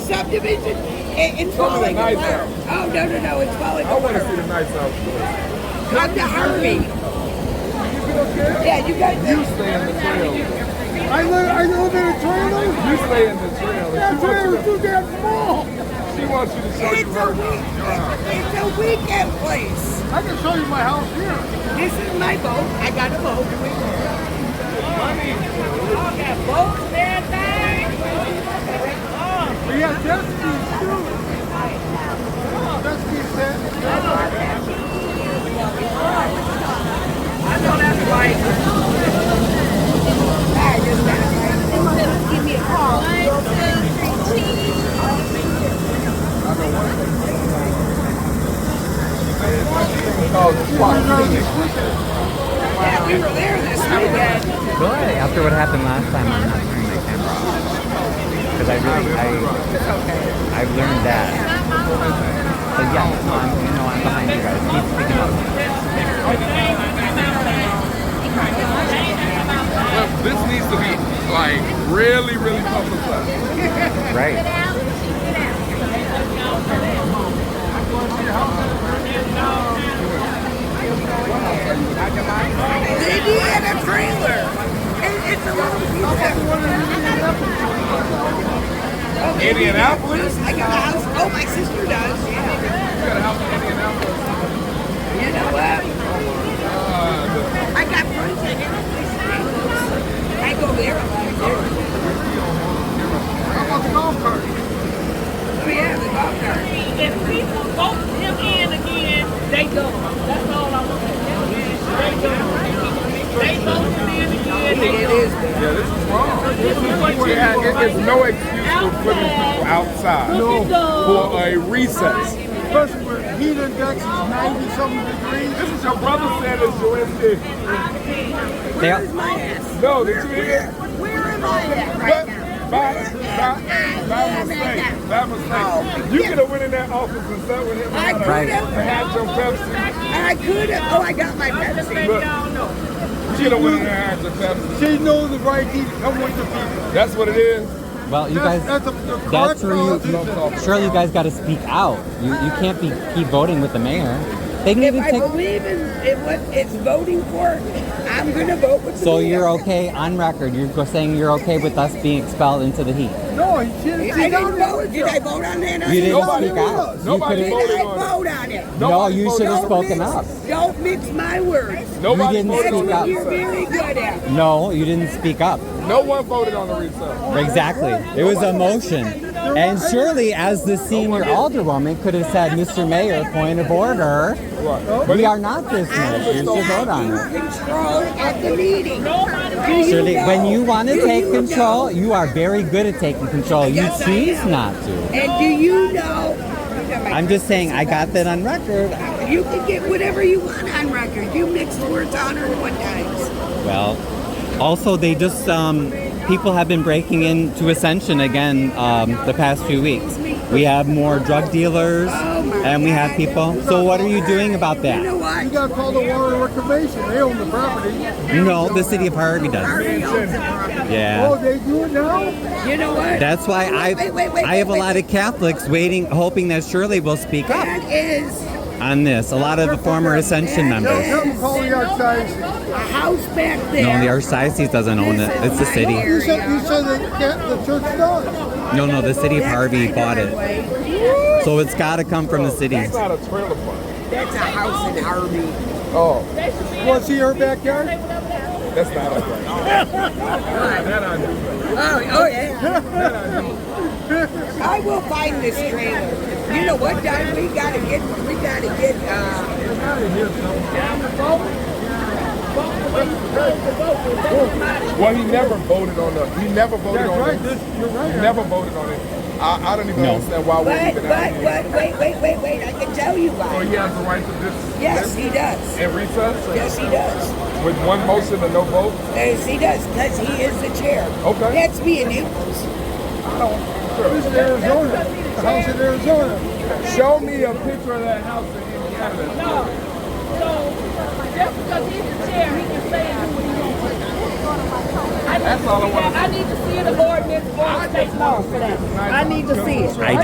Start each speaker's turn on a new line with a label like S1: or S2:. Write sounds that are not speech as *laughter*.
S1: subdivision, it, it's falling
S2: nice
S1: apart.
S2: out.
S1: Oh, no, no, no, it's falling
S2: I want to see
S1: apart.
S2: the nights out. You
S1: Come to Harvey.
S2: get up there?
S1: Yeah, you guys,
S2: You stay in the trail.
S3: I live, I live in a trailer.
S2: You stay in the trail.
S3: That
S2: She wants you
S3: trailer's too damn small.
S2: to- She wants you to show
S1: it's
S2: you
S1: a
S2: her
S1: week,
S2: house.
S1: it's a weekend place.
S3: I can show you my house here.
S1: This is my boat, I got a boat.
S4: Y'all got boats and everything? Oh,
S3: We have jet skis too. Jet skis there.
S4: I know that's right.
S5: Give me a call. One, two, three, cheese.
S2: Oh, the spot.
S1: Yeah, we were there this weekend.
S6: Good. After what happened last time, I'm not turning my camera off because I really, I, I learned that. So yeah, no, I'm, you know, I'm behind you guys. Keep speaking up.
S2: Look, This needs to be like really, really publicized.
S6: Right.
S1: They did a trailer. It, it's a little piece of.
S2: Indianapolis?
S1: I got a house. Oh, my sister does. Yeah.
S2: You got a house in Indianapolis.
S1: You know what? I got friends that get up these things. I go there a lot. Oh,
S3: How about the golf cart?
S1: Oh, yeah, the golf cart.
S4: If people vote him in again, they go. That's all I want to tell you. They go. They vote him in again, they
S1: It
S4: go.
S1: is.
S2: Yeah, this is wrong.
S4: This is what you
S2: Yeah,
S4: do
S2: it- it's
S4: right
S2: no excuse for putting people outside
S4: No.
S2: for a recess.
S3: Especially where heat index is 90 something degrees.
S2: This is your brother saying it's your MD.
S6: They all,
S2: No, did you hear?
S1: Where am I at
S2: But
S1: right now?
S2: by, by, by mistake, by mistake, you could have went in that office and sat with him
S1: I
S2: and
S1: could
S6: Right.
S1: have.
S2: had your Pepsi.
S1: I could have. Oh, I got my Pepsi.
S2: Look,
S4: now. No.
S2: you could have went in there and had your Pepsi.
S3: She knows the right heat to come with the people.
S2: That's what it is.
S6: well, you
S3: That's,
S6: guys.
S3: that's a, the correct
S6: That's where you.
S3: politician.
S6: you surely you guys got to speak out. You you can't be keep voting with the mayor. They can
S1: If I
S6: even take.
S1: believe in, in what it's voting for, I'm gonna vote with the
S6: So
S1: mayor.
S6: you're okay on record. You're go- saying you're okay with us being expelled into the heat.
S3: No, he didn't.
S1: I
S3: She
S1: didn't
S3: down there
S1: vote.
S3: with
S1: Did
S3: you.
S1: I vote on that?
S6: You didn't
S3: Nobody
S6: speak
S3: will.
S6: out. You
S2: Nobody
S6: couldn't.
S2: will.
S1: Did I
S2: voted on it.
S1: vote on it?
S6: No, you
S2: voted
S6: should have
S2: on it.
S6: spoken
S1: mix,
S6: up.
S1: Don't mix my words.
S2: Nobody
S6: You didn't
S2: voted
S1: That's
S2: on the
S6: speak
S1: what
S6: up.
S1: you're
S2: recess.
S1: very good at.
S6: No, you didn't speak up.
S2: No one voted on the recess.
S6: Exactly. It was a motion. And surely, as the senior alderwoman, could have said, Mr. Mayor, point of order.
S2: Right. But
S6: We are not this
S1: I
S6: night. You
S1: was
S6: should vote
S1: not
S6: on
S1: in
S6: it.
S1: control at the meeting. Do you
S6: Surely, when
S1: know?
S6: you want
S1: Do
S6: to take
S1: you
S6: control,
S1: know?
S6: you are very good at taking control. You
S1: Yes, I
S6: choose
S1: am.
S6: not to.
S1: And do you know?
S6: I'm just saying, I got that on record.
S1: You can get whatever you want on record. You mix the words on or one times.
S6: Well, also, they just, um, people have been breaking into Ascension again um, the past few weeks. We have more drug dealers
S1: Oh my
S6: and we have
S1: God. Uh,
S6: people. So, what are you doing about
S1: You know
S6: that?
S3: You
S1: what?
S3: got to call the Water and Reclamation. They own the property.
S6: No, the city of Harvey does.
S1: Harvey owns the property.
S3: Oh,
S6: Yeah.
S3: they do it now?
S1: You know what?
S6: That's why I,
S1: Wait, wait, wait,
S6: I have a
S1: wait,
S6: lot
S1: wait.
S6: of Catholics waiting, hoping that Shirley will speak up
S1: That is
S6: on this. A lot of the former Ascension
S3: They'll
S6: members.
S3: come and call the archdiocese.
S1: a house back there.
S6: No, the archdiocese doesn't own it. It's the city.
S3: You said, you said that the- the church does.
S6: No, no, the city of
S1: That's
S6: Harvey
S1: my
S6: bought it.
S1: driveway.
S6: So it's got to come from the city.
S2: it's not a trailer park.
S1: That's a house in Harvey.
S2: Oh,
S3: Want to see her backyard?
S2: that's not a trailer.
S3: *laughs*
S2: That I knew.
S1: Oh, oh yeah. *laughs* I will find this trailer. You know what, Don? We gotta get, we gotta get, uh,
S2: Well, he never voted on the. He never voted
S3: That's
S2: on
S3: right.
S2: it.
S3: This, you're
S2: He
S3: right.
S2: never voted on it. I, I don't even
S6: No.
S2: understand why we're
S1: but,
S2: even out
S1: but,
S2: here.
S1: but, wait, wait, wait, wait, I can tell you
S2: So
S1: why.
S2: he has the right to just
S1: Yes, he does.
S2: and recess
S1: Yes, he does.
S2: with one motion and no vote.
S1: Yes, he does, because he is the chair.
S2: Okay.
S1: That's being equals.
S3: This is Arizona. The house in Arizona.
S2: Show me a picture of that house in Indiana.
S4: So just because he's the chair, he can say and do what he wants. I need to
S2: That's all I
S4: see that.
S2: wanna
S4: I need to see the ordinance or the state law for that. I need to see it.
S6: I